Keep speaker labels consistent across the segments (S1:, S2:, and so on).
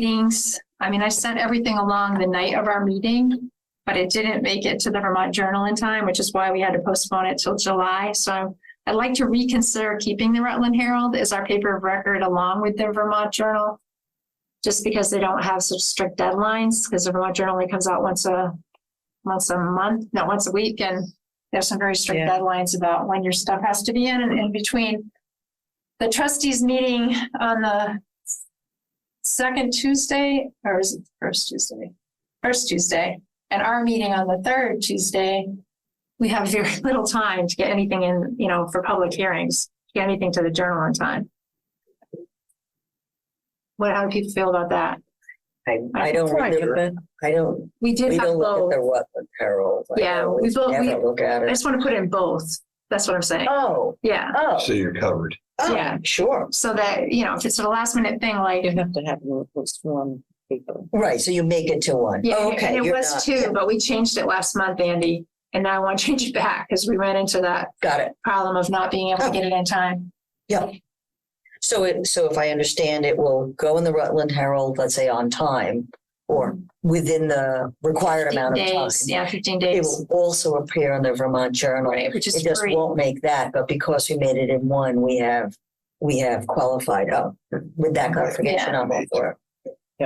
S1: meetings. I mean, I sent everything along the night of our meeting, but it didn't make it to the Vermont Journal in time, which is why we had to postpone it till July. So I'm- I'd like to reconsider keeping the Rutland Herald as our paper of record along with the Vermont Journal. Just because they don't have such strict deadlines, because the Vermont Journal only comes out once a, once a month, not once a week, and there's some very strict
S2: Yeah.
S1: deadlines about when your stuff has to be in and in between. The trustees meeting on the second Tuesday, or is it the first Tuesday? First Tuesday, and our meeting on the third Tuesday, we have very little time to get anything in, you know, for public hearings, to get anything to the journal in time. What, how do people feel about that?
S3: I, I don't remember, I don't,
S1: We did
S3: we
S1: have
S3: don't look
S1: both.
S3: at the Rutland Herald. I
S1: Yeah, we
S3: always
S1: both- we-
S3: Never look at
S1: I
S3: it.
S1: just want to put in both. That's what I'm saying.
S3: Oh,
S1: Yeah.
S3: oh,
S4: So you're covered.
S3: oh,
S1: yeah.
S3: sure.
S1: So that, you know, if it's a last minute thing, like,
S2: You have to have them post one paper.
S3: Right, so you make it to one.
S1: yeah,
S3: Oh,
S1: and
S3: okay.
S1: it
S3: you're
S1: was
S3: not-
S1: two, but we changed it last month, Andy. And now I want to change it back because we ran into that
S3: Got it.
S1: problem of not being able to
S3: Oh.
S1: get it in time.
S3: So it, so if I understand, it will go in the Rutland Herald, let's say on time or within the required
S1: 15
S3: amount of time.
S1: days, yeah, fifteen
S3: It
S1: days,
S3: will also appear in the Vermont Journal.
S1: right, which
S3: It
S1: is
S3: just
S1: free.
S3: won't make that, but because we made it in one, we have, we have qualified up with that clarification on all four.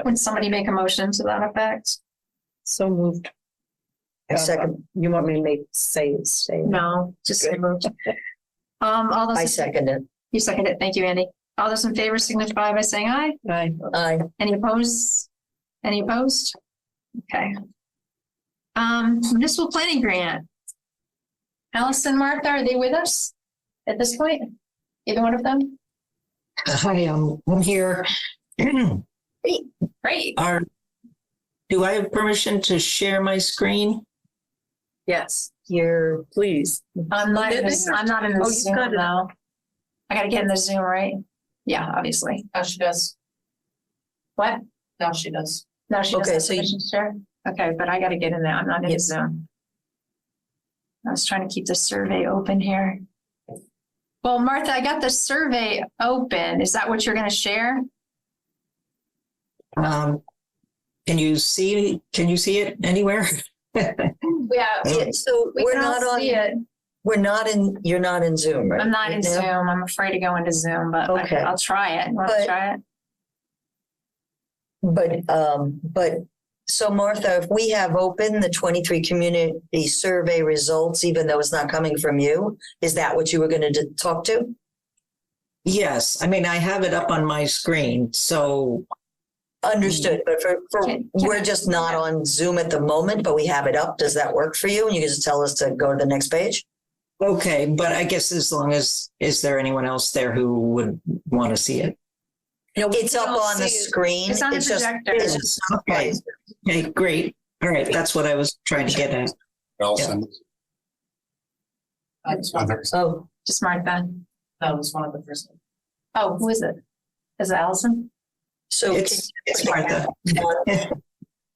S1: Would somebody make a motion to that effect?
S2: So moved.
S3: A second,
S2: You want me to make, say, say?
S1: No, just
S2: Good.
S1: removed. Um, all
S3: I
S1: those,
S3: second it.
S1: you seconded it. Thank you, Andy. All those in favor signify by saying aye.
S2: Aye.
S3: Aye.
S1: Any opposed? Any opposed? Okay. Um, municipal planning grant. Allison, Martha, are they with us at this point? Either one of them?
S5: Hi, I'm, I'm here.
S1: Great.
S5: Are, do I have permission to share my screen?
S1: Yes.
S2: Here, please.
S1: I'm not, in this- I'm not in
S2: Oh,
S1: the
S2: you've
S1: Zoom
S2: got it.
S1: though. I gotta get in the Zoom, right? Yeah, obviously.
S6: Now she does.
S1: What?
S6: Now she does.
S1: Oh, No, she doesn't
S3: Okay,
S1: have
S3: so you-
S1: permission to share. Okay, but I gotta get in there. I'm not in
S2: Yes.
S1: Zoom. I was trying to keep the survey open here. Well, Martha, I got the survey open. Is that what you're gonna share?
S5: Um, can you see, can you see it anywhere?
S1: Yeah.
S3: Yeah, So
S1: We
S3: we're
S1: can
S3: not
S1: all see
S3: on,
S1: it.
S3: we're not in, you're not in Zoom, right?
S1: I'm not in
S3: Right now?
S1: Zoom. I'm afraid to go into Zoom, but I-
S3: Okay.
S1: I'll try it. Want to
S3: But-
S1: try it?
S3: But, um, but, so Martha, if we have open the twenty-three community survey results, even though it's not coming from you, is that what you were gonna d- talk to?
S5: Yes, I mean, I have it up on my screen, so,
S3: Understood, but for, for,
S1: Can- can I-
S3: we're just not on Zoom at the moment, but we have it up. Does that work for you? And you can just tell us to go to the next page?
S5: okay, but I guess as long as, is there anyone else there who would want to see it?
S3: It's up
S1: don't
S3: on the
S1: see it.
S3: screen.
S1: It's on the
S3: just-
S1: projector.
S3: It's just not
S5: Okay,
S3: right.
S5: okay, great. All right, that's what I was trying to get at.
S4: Also,
S6: That was one of the-
S3: Oh,
S1: Just mark that.
S6: that was one of the first.
S1: Oh, who is it? Is it Allison?
S3: so can
S5: It's, it's Martha.
S1: It's
S3: Can we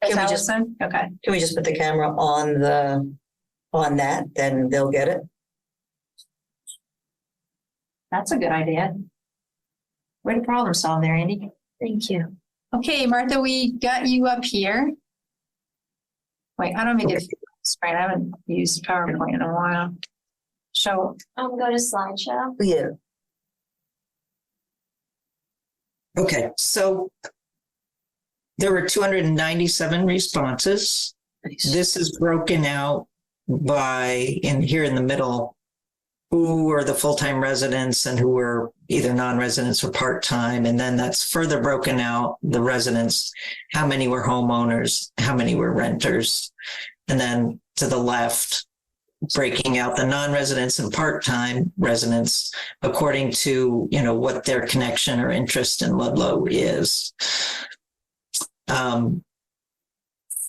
S3: just-
S1: Allison? Okay.
S3: can we just put the camera on the, on that, then they'll get it?
S1: That's a good idea. Way to problem solve there, Andy. Thank you. Okay, Martha, we got you up here. Wait, how do I make it? Right, I haven't used PowerPoint in a while. So
S7: Um, go to slideshow.
S3: Yeah,
S5: Okay, so there were 297 responses. This is broken out by, in here in the middle, who were the full-time residents and who were either non-residents or part-time. And then that's further broken out, the residents, how many were homeowners, how many were renters. And then to the left, breaking out the non-residents and part-time residents according to you know what their connection or interest in Ludlow is. Um,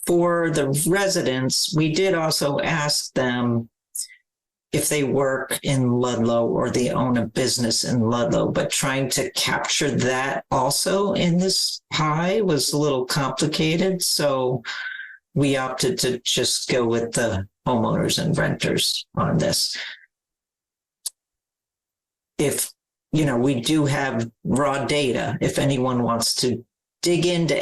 S5: for the residents, we did also ask them if they work in Ludlow or they own a business in Ludlow, but trying to capture that also in this pie was a little complicated. So we opted to just go with the homeowners and renters on this if you know we do have raw data if anyone wants to dig into